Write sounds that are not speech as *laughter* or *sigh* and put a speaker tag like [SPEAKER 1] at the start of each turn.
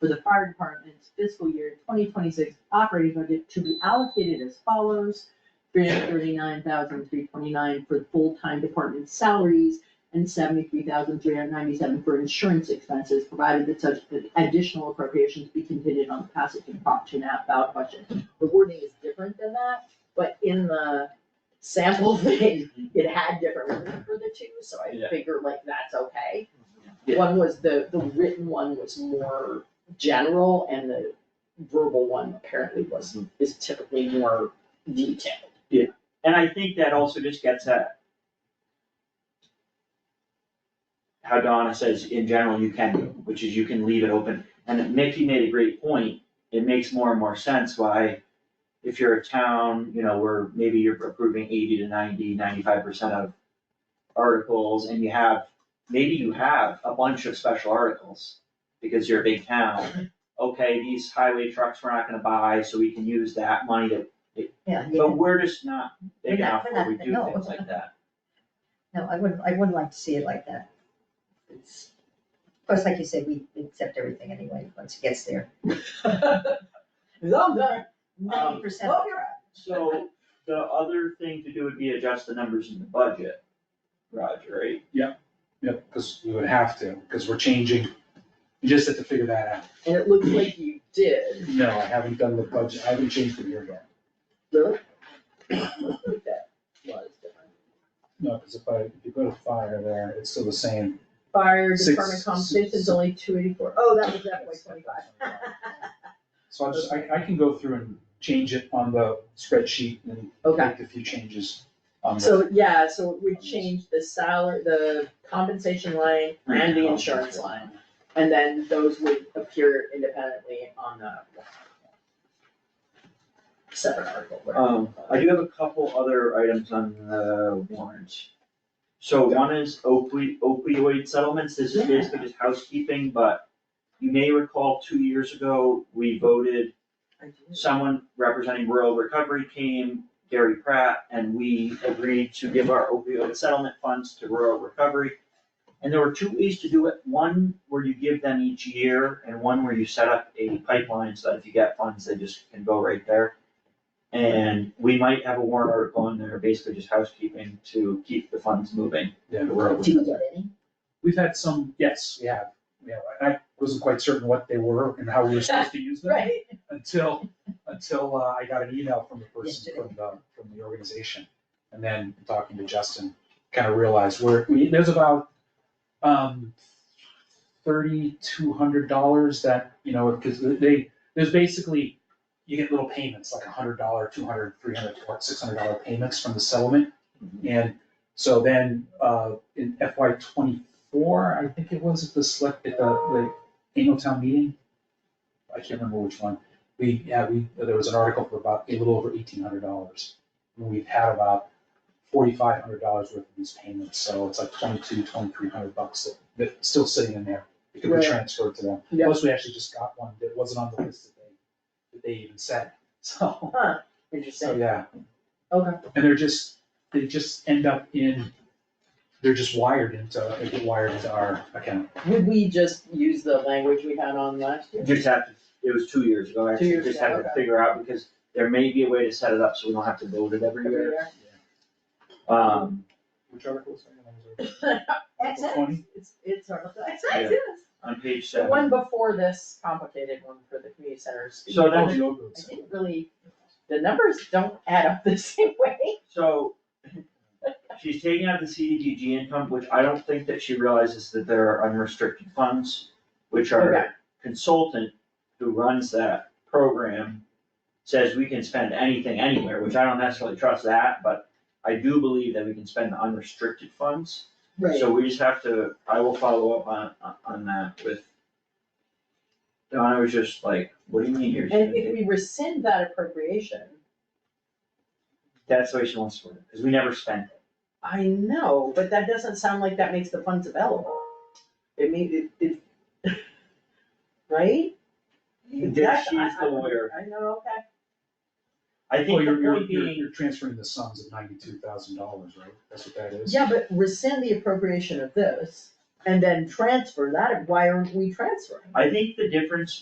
[SPEAKER 1] for the fire department's fiscal year twenty twenty-six operating budget to be allocated as follows. Three hundred thirty-nine thousand three twenty-nine for full-time department salaries and seventy-three thousand three hundred ninety-seven for insurance expenses, provided that such additional appropriations be contingent on the passage and Prop two and a half ballot question. The wording is different than that, but in the sample *laughs* thing, it had different wording for the two, so I
[SPEAKER 2] Yeah.
[SPEAKER 1] figured like that's okay.
[SPEAKER 2] Yeah.
[SPEAKER 1] One was the, the written one was more general and the verbal one apparently was,
[SPEAKER 3] Hmm.
[SPEAKER 1] is typically more detailed.
[SPEAKER 2] And I think that also just gets at how Donna says in general you can do, which is you can leave it open. And Mickey made a great point. It makes more and more sense why if you're a town, you know, where maybe you're approving eighty to 90, 95 percent of articles and you have, maybe you have a bunch of special articles because you're a big town. Okay, these highway trucks we're not gonna buy, so we can use that money to
[SPEAKER 4] Yeah, you
[SPEAKER 2] but
[SPEAKER 4] can-
[SPEAKER 2] we're just not big
[SPEAKER 4] We're not-
[SPEAKER 2] enough
[SPEAKER 4] we're
[SPEAKER 2] where
[SPEAKER 4] not-
[SPEAKER 2] we do
[SPEAKER 4] no.
[SPEAKER 2] things like
[SPEAKER 4] *laughs*
[SPEAKER 2] that.
[SPEAKER 4] no, I wouldn't, I wouldn't like to see it like that. It's, of course, like you said, we accept everything anyway, once it gets there.
[SPEAKER 1] I'm done.
[SPEAKER 4] Ninety percent.
[SPEAKER 1] Oh, you're right.
[SPEAKER 2] So the other thing to do would be adjust the numbers in the budget, Roger, right?
[SPEAKER 3] Yeah, because we would have to, because we're changing, you just have to figure that out.
[SPEAKER 1] And it looks like you did.
[SPEAKER 3] No, I haven't done the budget, I haven't changed the year yet.
[SPEAKER 1] Really? That was different.
[SPEAKER 3] No, because if I, if you go to fire there, it's still the same.
[SPEAKER 1] Fire
[SPEAKER 3] Six-
[SPEAKER 1] department compensation is only two eighty-four. Oh, that was definitely twenty-five.
[SPEAKER 3] So I'll just, I, I can go through and change it on the spreadsheet and
[SPEAKER 1] Okay.
[SPEAKER 3] make a few changes on the.
[SPEAKER 1] So, yeah, so we changed the salary, the compensation line and the insurance line. And then those would appear independently on the separate article. whatever.
[SPEAKER 2] Um, I do have a couple other items on the warrant. So one is opioid, opioid settlements, this is basically just housekeeping, but you may recall two years ago, we voted
[SPEAKER 1] I do.
[SPEAKER 2] someone representing rural recovery came, Gary Pratt, and we agreed to give our opioid settlement funds to rural recovery. And there were two ways to do it, one where you give them each year, and one where you set up a pipeline so that if you get funds, they just can go right there. And we might have a warrant article in there, basically just housekeeping to keep the funds moving
[SPEAKER 3] Yeah,
[SPEAKER 2] to rural
[SPEAKER 4] Do you
[SPEAKER 2] recovery.
[SPEAKER 4] get any?
[SPEAKER 3] we've had some, yes, we have, yeah, I wasn't quite certain what they were and how we were supposed to use them.
[SPEAKER 1] Right,
[SPEAKER 3] until, until uh, I got an email from the person,
[SPEAKER 4] Yesterday.
[SPEAKER 3] from the, from the organization. And then talking to Justin, kind of realized where, we, there's about, um, thirty-two hundred dollars that, you know, because they, there's basically, you get little payments, like a hundred dollar, two hundred, three hundred, six hundred dollar payments from the settlement. And so then, uh, in FY twenty-four, I think it was at the select, at the, the annual town meeting. I can't remember which one. We, yeah, we, there was an article for about a little over eighteen hundred dollars. And we've had about forty-five hundred dollars worth of these payments, so it's like twenty-two, twenty-three hundred bucks that, that's still sitting in there. It could
[SPEAKER 1] Right.
[SPEAKER 3] be transferred to them.
[SPEAKER 1] Yeah.
[SPEAKER 3] Plus, we actually just got one that wasn't on the list that they, that they even sent, *laughs* so, so,
[SPEAKER 1] interesting,
[SPEAKER 3] yeah.
[SPEAKER 1] okay.
[SPEAKER 3] And they're just, they just end up in, they're just wired into, they get wired into our account.
[SPEAKER 1] Would we just use the language we had on last year?
[SPEAKER 2] Just have to, it was two years ago, I
[SPEAKER 1] Two years
[SPEAKER 2] just had
[SPEAKER 1] ago,
[SPEAKER 2] to
[SPEAKER 1] okay.
[SPEAKER 2] figure out, because there may be a way to set it up so we don't have to vote it every
[SPEAKER 1] Every *laughs*
[SPEAKER 2] year.
[SPEAKER 1] year?
[SPEAKER 2] Um,
[SPEAKER 3] Which article is that?
[SPEAKER 1] XX,
[SPEAKER 3] Twenty?
[SPEAKER 1] it's, it's Article XX,
[SPEAKER 2] Yeah.
[SPEAKER 1] yes.
[SPEAKER 2] on page
[SPEAKER 1] The
[SPEAKER 2] seven.
[SPEAKER 1] one before this complicated one for the community centers.
[SPEAKER 2] So
[SPEAKER 3] Oh,
[SPEAKER 2] that's-
[SPEAKER 3] the old
[SPEAKER 1] I didn't really, the numbers don't add up *laughs* the same way.
[SPEAKER 2] So *laughs* she's taking out the CDBG income, which I don't think that she realizes that there are unrestricted funds, which
[SPEAKER 1] Okay.
[SPEAKER 2] are consultant who runs that program says we can spend anything anywhere, which I don't necessarily trust that, but I do believe that we can spend the unrestricted funds. So we just have to, I will follow up on, on- on that with Donna was just like, what do you mean you're
[SPEAKER 1] And
[SPEAKER 2] spending?
[SPEAKER 1] if we rescind that appropriation,
[SPEAKER 2] That's the way she wants to word it, because we never spent it.
[SPEAKER 1] I know, but that doesn't sound like that makes the funds available. It mean, it, it, *laughs* right?
[SPEAKER 2] This, she's the lawyer.
[SPEAKER 1] I know, okay.
[SPEAKER 2] I
[SPEAKER 3] Well,
[SPEAKER 2] think the
[SPEAKER 3] you're, you're,
[SPEAKER 2] point
[SPEAKER 3] you're,
[SPEAKER 2] being,
[SPEAKER 3] you're transferring the sums of ninety-two thousand dollars, right? That's what that is?
[SPEAKER 1] Yeah, but rescind the appropriation of this and then transfer that, why aren't we transferring?
[SPEAKER 2] I think the difference